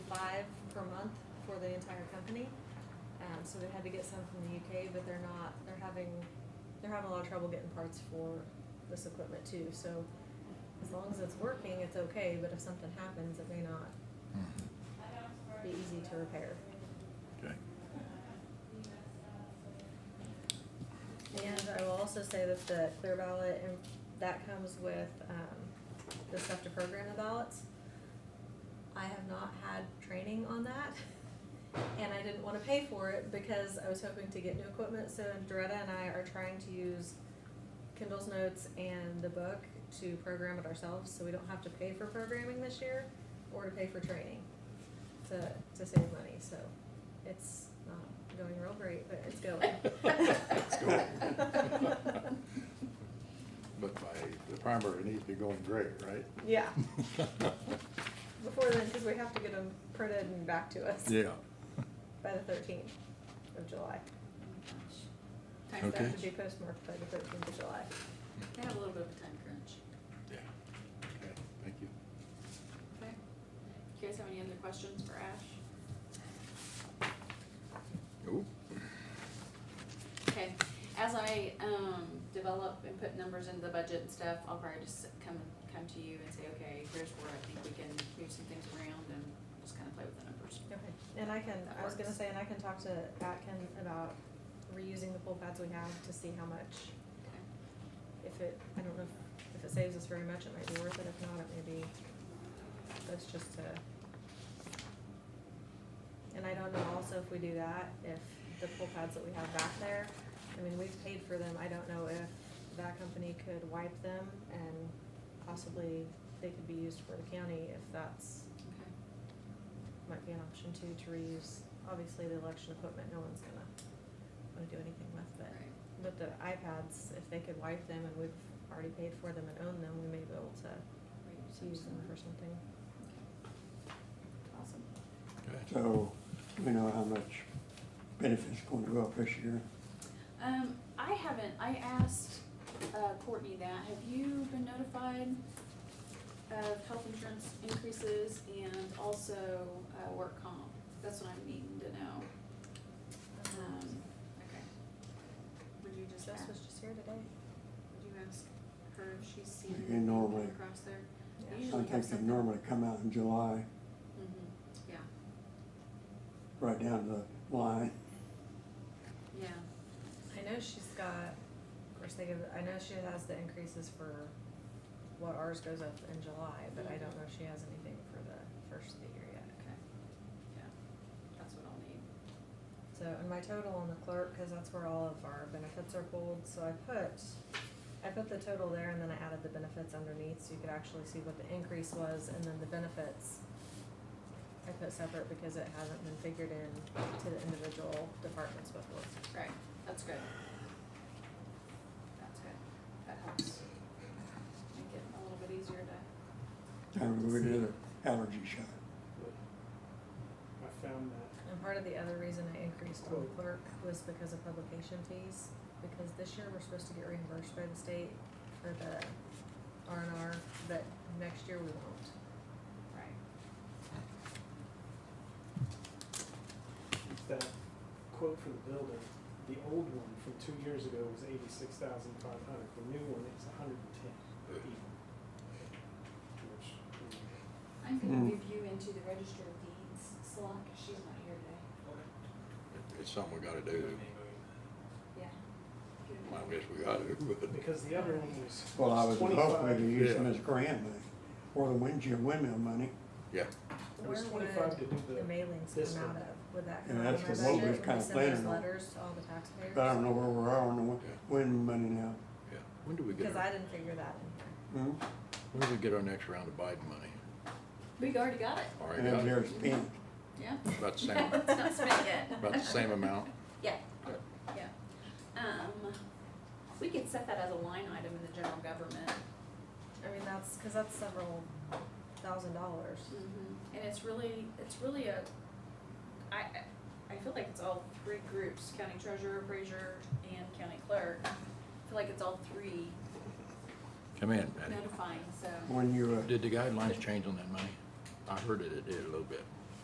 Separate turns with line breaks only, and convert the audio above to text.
month for the entire company. Um, so they had to get some from the UK, but they're not, they're having, they're having a lot of trouble getting parts for this equipment too, so as long as it's working, it's okay, but if something happens, it may not be easy to repair.
Okay.
And I will also say that the clear ballot, and that comes with, um, the stuff to program the ballots. I have not had training on that, and I didn't wanna pay for it because I was hoping to get new equipment, so Doretta and I are trying to use Kindle's notes and the book to program it ourselves, so we don't have to pay for programming this year or to pay for training to, to save money, so it's not going real great, but it's going.
It's going. But by, the primary needs to be going great, right?
Yeah, before then, because we have to get them printed and back to us
Yeah,
by the thirteenth of July.
Time
So They have
Okay.
to be postmarked by the thirteenth of July.
crunch. They have a little bit of a time crunch.
yeah, okay, thank you.
Okay. Do you guys have any other questions for Ash?
Ooh.
Okay, as I, um, develop and put numbers into the budget and stuff, I'll probably just come, come to you and say, okay, here's where I think we can move some things around and just kind of play with the numbers.
Okay, and I can, I
That
was gonna
works.
say, and I can talk to Atkin about reusing the pool pads we have to see how much,
Okay.
if it, I don't know, if- if it saves us very much, it might be worth it, if not, it may be, that's just to. And I don't know also if we do that, if the pool pads that we have back there, I mean, we've paid for them, I don't know if that company could wipe them and possibly they could be used for the county if that's
Okay.
might be an option too, to reuse, obviously the election equipment, no one's gonna wanna do anything with, but,
Right.
but the iPads, if they could wipe them and we've already paid for them and own them, we may be able to, to use them for something.
Awesome.
Okay.
So, do we know how much benefits going to go up this year?
Um, I haven't, I asked, uh, Courtney that, have you been notified of health insurance increases and also, uh, work comp? That's what I'm needing to know. Um, okay. Would you just
Jess
ask,
was
would
just here today.
you ask her if she's seen
You
anything
normally-
across there?
Yeah.
Usually
I
have
think they
something.
normally come out in July,
Mm-hmm, yeah,
right down the line.
yeah,
I know she's got, of course, they give, I know she has the increases for what ours goes up in July, but I don't know if she has anything for the first of the year yet.
okay, yeah, that's what I'll need.
So, and my total on the clerk, cause that's where all of our benefits are pulled, so I put, I put the total there and then I added the benefits underneath, so you could actually see what the increase was, and then the benefits I put separate because it hasn't been figured in to the individual departments before.
Right, that's good. That's good, that helps. Make it a little bit easier to,
Time we did an allergy shot.
I found that.
And part of the other reason I increased on the clerk was because of publication fees, because this year we're supposed to get reimbursed by the state for the R and R, but next year we won't.
right,
That quote for the building, the old one from two years ago was eighty-six thousand five hundred, the new one is a hundred and ten even. Which, mm,
I'm gonna
Mm.
move you into the register of deeds slot, 'cause she's not here today.
It's something we gotta do,
Yeah. Give it
Well,
back.
I guess we gotta, but,
Because the other one was
Well, I was hoping to
twenty-five,
use them
Yeah.
as grant money, or the windmill, windmill money,
yeah,
it was
Where
twenty-five
would-
to do
the
the,
mailings
this
come out
one.
of, would that
And
come out
that's
of my
what
budget?
Logan was
when
kinda
we send those
planning on.
letters to all the taxpayers?
but I don't know where we are on the wi-
Yeah.
windmill money now.
yeah. When do we get,
Because I
our-
didn't figure that in
Hmm?
when do we get our next round of Biden money?
we already got it,
All right,
And
got
that
it?
there's pink.
yeah.
about the
Yeah,
same,
It's not spent yet.
about the same amount,
Yeah, yeah. Um, we could set that as a line item in the general government.
there. I mean, that's, because that's several thousand dollars.
And it's really, it's really a, I, I- I feel like it's all three groups, county treasurer, appraiser, and county clerk. I feel like it's all three
come in, Patty.
notifying, so.
When you, uh,
Did the guidelines change on that money? I heard that it did a little bit.